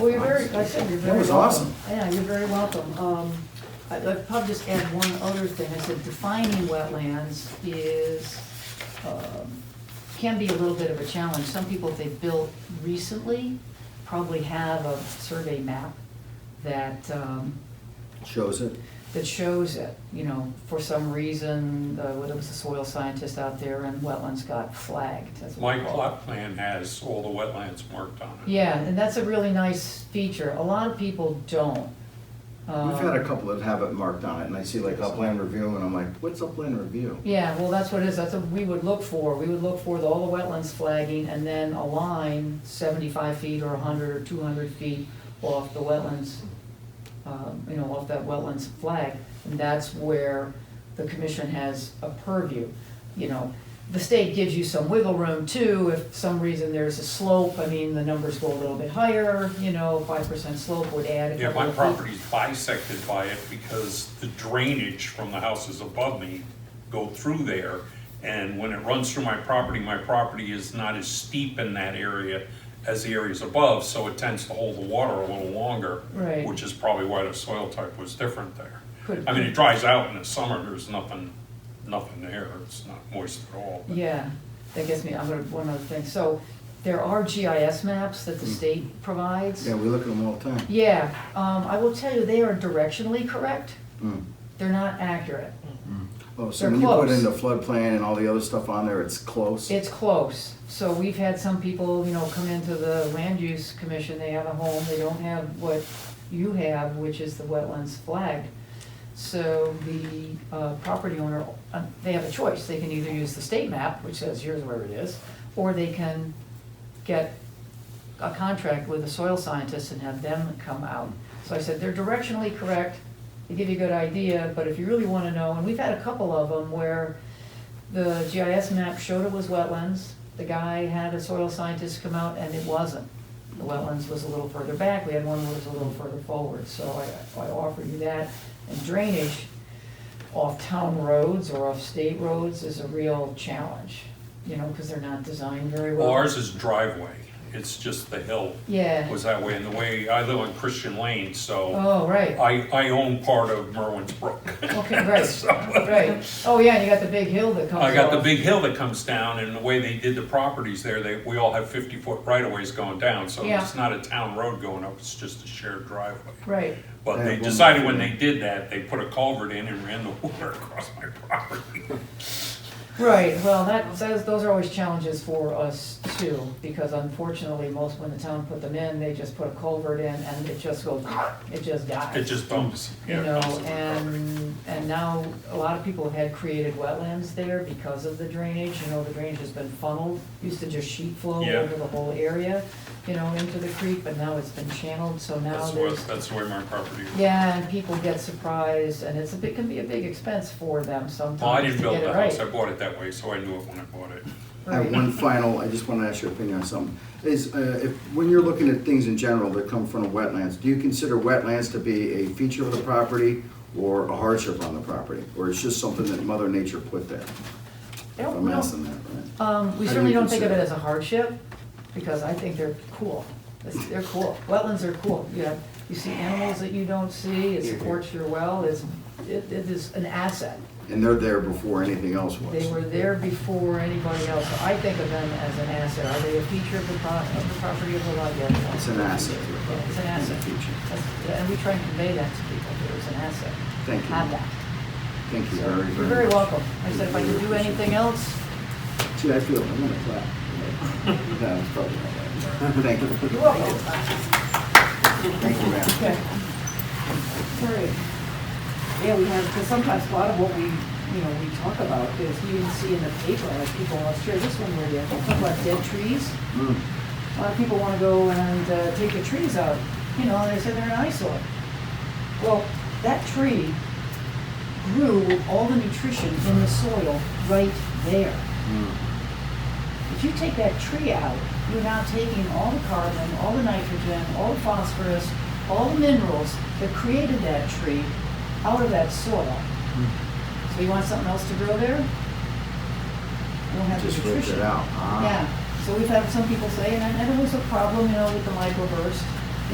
question, you're very welcome. That was awesome. Yeah, you're very welcome. Um, I- I'd probably just add one other thing, I said defining wetlands is, um, can be a little bit of a challenge. Some people, if they've built recently, probably have a survey map that, um, Shows it. that shows it, you know, for some reason, uh, whether it was a soil scientist out there and wetlands got flagged. That's what My we call it. plot plan has all the wetlands marked on it. Yeah, and that's a really nice feature. A lot of people don't. Um, We've had a couple that have it marked on it, and I see like upland review, and I'm like, what's upland review? Yeah, well, that's what it is. That's what we would look for. We would look for the- all the wetlands flagging and then a line seventy-five feet or hundred or two hundred feet off the wetlands, um, you know, off that wetlands flag. And that's where the commission has a purview, you know. The state gives you some wiggle room too, if some reason there's a slope, I mean, the numbers go a little bit higher, you know, five percent slope would add a Yeah, couple my of feet. property's bisected by it because the drainage from the houses above me go through there. And when it runs through my property, my property is not as steep in that area as the areas above, so it tends to hold the water a little longer. Right. Which is probably why the soil type was different there. Could- I mean, it dries out in the summer, there's nothing, nothing there, it's not moist at all. but- Yeah, that gets me, I'm gonna, one other thing, so there are GIS maps that the state provides. Yeah, we look at them all the time. Yeah, um, I will tell you, they are directionally correct, Mm. they're not accurate. Oh, so They're when you put close. in the floodplain and all the other stuff on there, it's close? It's close, so we've had some people, you know, come into the land use commission, they have a home, they don't have what you have, which is the wetlands flagged. So the, uh, property owner, uh, they have a choice, they can either use the state map, which says here's where it is, or they can get a contract with a soil scientist and have them come out. So I said, they're directionally correct, they give you a good idea, but if you really wanna know, and we've had a couple of them where the GIS map showed it was wetlands, the guy had a soil scientist come out and it wasn't. The wetlands was a little further back, we had one that was a little further forward, so I, I offer you that. And drainage off town roads or off state roads is a real challenge, you know, cause they're not designed very well. Well, ours is driveway, it's just the hill Yeah. was that way, and the way, I live on Christian Lane, so Oh, right, I, I own part of Merwin's Brook. okay, right, right. Oh, yeah, and you got the big hill that comes off. I got the big hill that comes down, and the way they did the properties there, they, we all have fifty-foot right-of-ways going down, so Yeah. it's not a town road going up, it's just a shared driveway. Right, But Yeah, they one decided more when they thing. did that, they put a culvert in and ran the water across my property. right, well, that says, those are always challenges for us too, because unfortunately, most, when the town put them in, they just put a culvert in and it just goes, it just dies. It just dumps, you yeah, it know, dumps on my property. and, and now, a lot of people had created wetlands there because of the drainage, you know, the drainage has been funneled, used to just sheet flow Yeah. over the whole area, you know, into the creek, but now it's been channeled, so now That's the way, there's. that's the way my property is. Yeah, and people get surprised, and it's a big, can be a big expense for them Well, Oh, I sometimes didn't to build get it the right. house, I bought it that way, so I knew it when I bought it. I have one final, I just want to ask your opinion on something. Is, uh, if, when you're looking at things in general that come from wetlands, do you consider wetlands to be a feature of the property or a hardship on the property? Or it's just something that Mother Nature put there? I don't I'm know. asking that, right? Um, we How do certainly you don't think of it consider- as a hardship, because I think they're cool. It's- They're cool. Wetlands are cool. You have, you see animals that you don't see, it supports your well, it's, it, it is an asset. And they're there before anything else They was. were there before anybody else, so I think of them as an asset. Are they a feature of the pro, of the property of the lot? Yes. It's an asset. Yeah, It's an It's a asset. feature. That's- And we try and convey that to people, that it's an asset. Thank you. Have that. Thank you very, very much. You're very welcome. I said if I could do anything else, See, I feel, I'm gonna clap. No, it's probably not right. Thank you. you're welcome. Thank you, ma'am. Okay. Sorry. Yeah, we have, because sometimes a lot of what we, you know, we talk about is you can see in the paper, like people, I'll share this one with you, about dead trees. Mm. A lot of people want to go and uh, take the trees out, you know, and they said they're an eyesore. Well, that tree grew with all the nutrition in the soil right there. Mm. If you take that tree out, you're now taking all the carbon, all the nitrogen, all the phosphorus, all the minerals that created that tree out of that soil. Hmm. So you want something else to grow there? You don't have the Just nutrition. ripped it out. Ah. Yeah, so we've had some people say, and I- and it was a problem, you know, with the microburst,